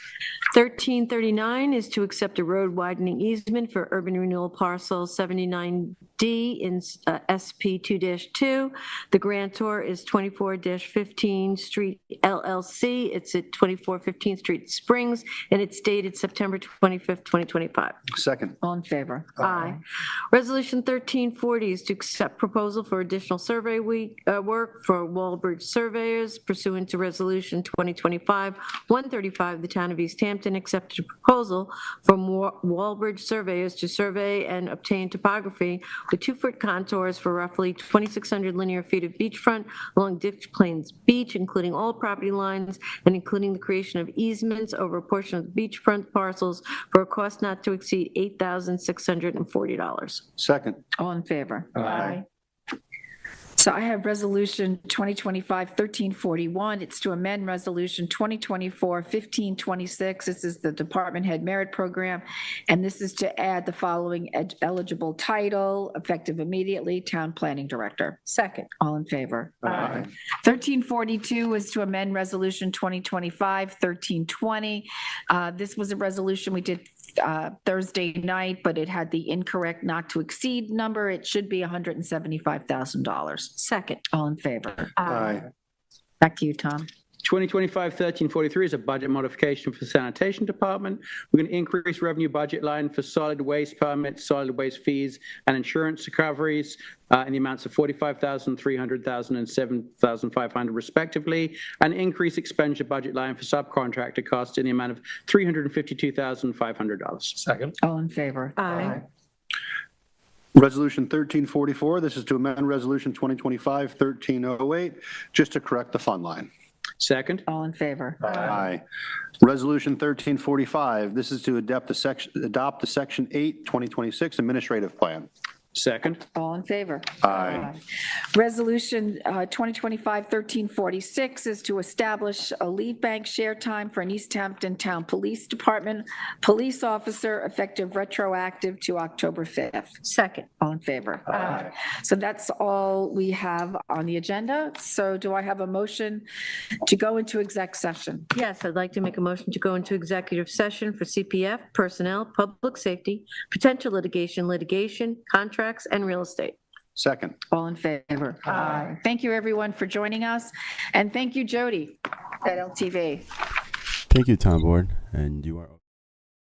1339 is to accept a road widening easement for urban renewal parcel 79D in uh, SP 2-2. The grantor is 24-15 Street LLC. It's at 2415 Street Springs, and it's dated September 25th, 2025. Second. All in favor? Aye. Resolution 1340 is to accept proposal for additional survey week, uh, work for Walbridge surveyors pursuant to Resolution 2025-135. The Town of East Hampton accepted a proposal from Wa- Walbridge surveyors to survey and obtain topography with two-foot contours for roughly 2,600 linear feet of beachfront along Ditch Plains Beach, including all property lines and including the creation of easements over a portion of the beachfront parcels for a cost not to exceed $8,640. Second. All in favor? Aye. So I have Resolution 2025-1341. It's to amend Resolution 2024-1526. This is the Department Head Merit Program, and this is to add the following ed- eligible title, effective immediately, Town Planning Director. Second. All in favor? Aye. 1342 is to amend Resolution 2025-1320. Uh, This was a resolution we did uh, Thursday night, but it had the incorrect not to exceed number. It should be $175,000. Second. All in favor? Aye. Back to you, Tom. 2025-1343 is a budget modification for the sanitation department. We're going to increase revenue budget line for solid waste permits, solid waste fees, and insurance recoveries uh, in the amounts of 45,000, 300,000, and 7,500 respectively, and increase expenditure budget line for subcontractor costs in the amount of $352,500. Second. All in favor? Aye. Resolution 1344, this is to amend Resolution 2025-1308, just to correct the fund line. Second, All in favor? Aye. Resolution 1345, this is to adopt the section, adopt the Section 8, 2026 Administrative Plan. second, All in favor? Aye. Resolution uh, 2025-1346 is to establish a lead bank share time for an East Hampton Town Police Department police officer effective retroactive to October 5th. Second. All in favor? Aye. So that's all we have on the agenda. So do I have a motion to go into exec session? Yes, I'd like to make a motion to go into executive session for CPF, personnel, public safety, potential litigation, litigation, contracts, and real estate. Second. All in favor? Aye. Thank you, everyone, for joining us, and thank you, Jody, at LTV. Thank you, Tom Board, and you are.